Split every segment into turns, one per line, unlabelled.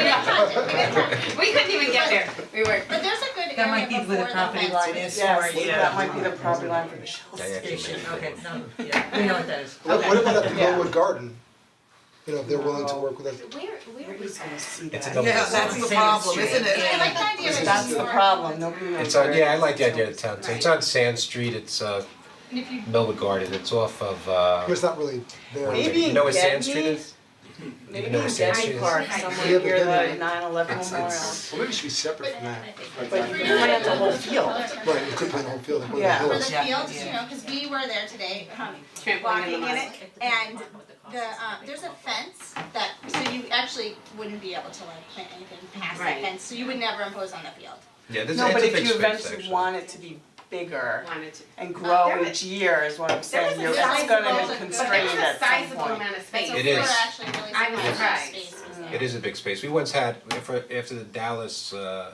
We couldn't even get there, we were.
But there's a good
That
area
might be
before
where the property
fence.
line is for
Yes,
you.
that might be the property line for the Shell
Yeah, yeah, she
station.
mentioned
Okay,
it.
no, yeah, we know what that is.
What what about at the
Yeah.
Glenwood Garden? You know, if they're willing to work with us.
Where, where
Nobody's gonna see that.
It's a double-
Yeah, that's the problem, isn't it?
I like the idea that
That's
you
the
are-
problem, nobody knows
It's on,
where
yeah, I
it
like
is.
the idea of town, so it's on Sand Street, it's uh
And if you,
Melwood Garden, it's off of uh.
It's not really there.
Maybe
You know where
Gedney?
Sand Street is?
Maybe
You know
in
what Sand
Denny
Street is?
Park,
Yeah,
somewhere
but
near
then
the
it-
nine eleven
It's-
memorial.
it's-
Well, maybe it should be separate from that.
But you plant the whole field.
Right, you could plant a whole field, like one of
Yeah.
For
the
the
hills.
Yeah,
fields, you
yeah.
know, cause we were there today, um, walking in it, and the, um, there's a fence that, so you actually wouldn't be able to like plant anything past that
Right.
fence, so you would never impose on the field.
Yeah, this,
No,
it's
but
a
if
big
you
space
eventually
actually.
want it to be bigger
wanted to.
and grow
there
each year is what I'm saying,
was a
you're, it's
sizable-
gonna
but
be
there was a
constrained at some point.
There was a sizable amount of space.
So
It
we were
is. Mm.
actually really surprised how
I'm
much
surprised.
space was there.
It is a big space, we once had, after after the Dallas, uh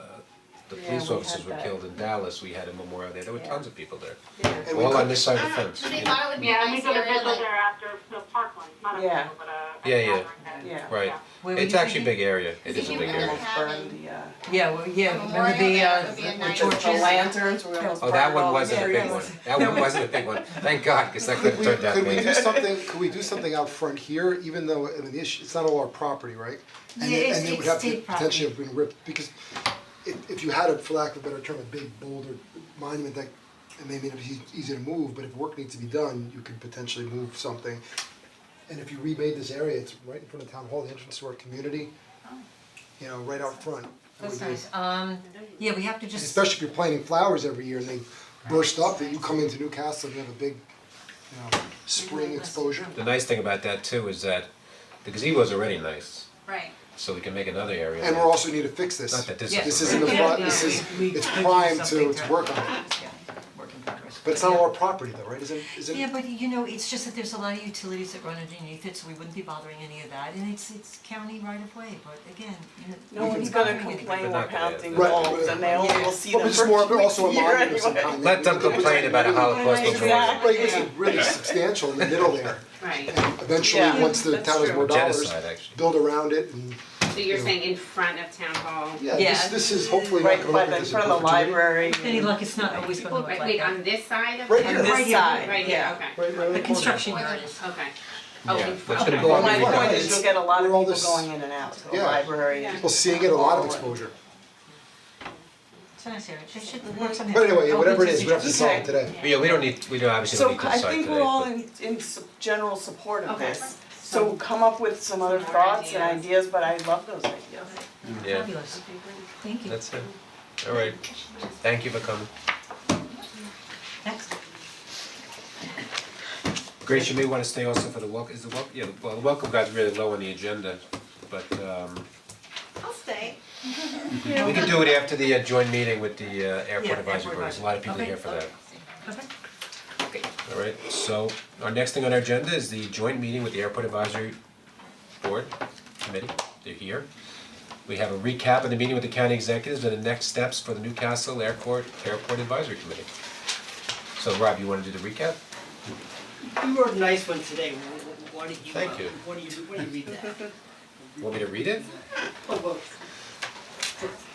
the
Yeah,
police
we
officers
had
were
that.
killed in Dallas, we had a memorial there, there were
Yeah.
tons of people there.
And we
All on
could,
this side of the
I don't know,
fence,
so they
you know.
thought it would be a nice area, like,
after the parkland, not
a Yeah. field,
but a.
a Yeah, yeah.
Yeah.
right,
Where were
it's
you
actually a
thinking?
big area, it is a
you
big
were
area.
gonna
Almost
having
burned the, uh,
Yeah, well, yeah, remember the
Memorial,
uh,
that would be a
the
nice-
the
torches?
lanterns, we almost
Oh, that
burned all
one
the
wasn't a big
trees.
one, that one wasn't a big one, thank God, cause that could have turned out
could
big.
we do something, could we do something out front here, even though, I mean, the issue, it's not all our property, right? And
Yeah,
it,
it's-
and it would
it's
have to
state property.
potentially have been ripped, because if, if you had a, for lack of a better term, a big boulder monument that, it may be easy- easy to move, but if work needs to be done, you could potentially move something. And if you remade this area, it's right in front of town hall, the entrance to our community, you know, right out front.
Oh. That's nice, um, yeah, we have to just
especially if you're planting flowers every year and they burst up, that you come into Newcastle and you have a big, you know, spring exposure.
The nice thing about that too is that the gazebo's already nice,
right,
so we can make another area.
And we also need to fix this.
Not that this is-
This isn't the, pro- this is, it's prime to, to work on.
Yeah, work in progress.
But it's not all our property though, right? Isn't, isn't?
Yeah, but you know, it's just that there's a lot of utilities that run underneath it, so we wouldn't be bothering any of that, and it's it's county right of way, but again, you know,
No one's gonna complain we're
They're not gonna-
pounding
Right.
walls and they only will see
Well,
them
but it's
for
more,
two
but also a
weeks a year
monument of some
anyway.
kind.
Let them complain about a Holocaust memorial.
Exactly.
Right, it's really substantial in the middle there.
Right,
And eventually,
Yeah,
once the
that's
town has
true.
more dollars,
Genocide, actually.
build around it and,
so you're saying in front of town hall?
yeah,
Yeah.
this, this is hopefully not
Right,
gonna
but
look at
in
this in
front of the
perpetuity.
library.
With any luck, it's not always gonna look
Wait,
like
wait,
that.
on this side of
Right
town?
here.
This
Right here,
side,
Right here,
yeah.
okay,
Right, right on
The
corner.
construction yard is.
okay. Oh,
Yeah,
in
that's
front,
gonna
okay.
go
Well,
on
my
the
point
record.
is you'll get a lot of
We're all
people
this-
going in and out to the
Yeah.
library.
People seeing it, a lot of exposure.
It's nice area, it should work somehow.
But anyway, whatever it is, we have to
Open
solve it today.
Yeah, we don't need, we don't obviously
So
don't need
c-
to
I
decide
think
today,
we're all
but
in in s- general support of
Okay.
this. So come up with some other
more
thoughts and
ideas.
ideas, but I love those ideas.
yeah,
Fabulous, thank you,
that's it. All right, thank you for coming.
next.
Grace, you may wanna stay also for the welcome, is the welcome, yeah, well, the welcome guy's really low on the agenda, but um
I'll stay.
we can do it after the uh, joint meeting with the uh, airport
Yeah,
advisory
airport
board, there's a lot of
advisory.
people here for that.
Okay. Okay.
All right, so our next thing on our agenda is the joint meeting with the Airport Advisory Board Committee, they're here. We have a recap of the meeting with the county executives and the next steps for the Newcastle Airport Airport Advisory Committee. So Rob, you wanna do the recap?
You wrote a nice one today, Wh- wh- why don't you, uh,
Thank you.
why don't you, why don't you read that?
Want me to read it?
Oh, well,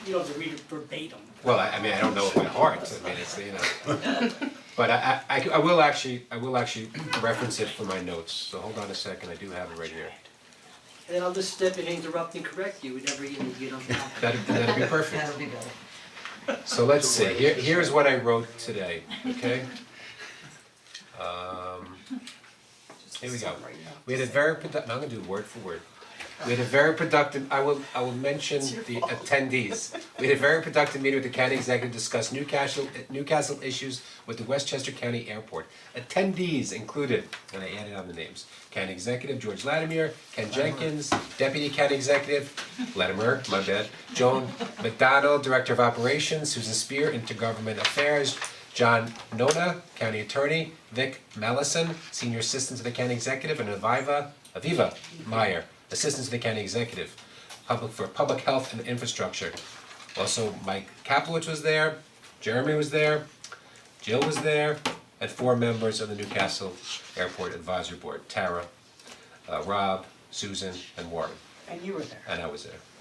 you don't have to read it verbatim.
Well, I I mean, I don't know it by heart, I mean, it's, you know. But I I- I c- I will actually, I will actually reference it for my notes, so hold on a second, I do have it right here.
And then I'll just step in and interrupt and correct you whenever you need to get on top.
That'd that'd be perfect.
That'll be better.
So let's see, here here's what I wrote today, okay? Um here we go. We had a very productive. I'm gonna do word for word. We had a very productive, I will I will mention the attendees. We had a very productive meeting with the county executive, to discuss Newcastle Newcastle issues with the Westchester County Airport. Attendees included, and I added on the names, county executive George Latimer, Ken Jenkins, deputy county executive, Latimer, my bad, Joan McDonald, director of operations, Susan Spear, intergovernment affairs, John Nona, County Attorney, Vic Mellison, Senior Assistant to the County Executive, and Aviva, Aviva Meyer, Assistant to the County Executive, Public, for Public Health and Infrastructure. Also, Mike Kaplowitz was there, Jeremy was there, Jill was there, and four members of the Newcastle Airport Advisory Board, Tara, uh, Rob, Susan, and Warren,
And you were there.
and I was there.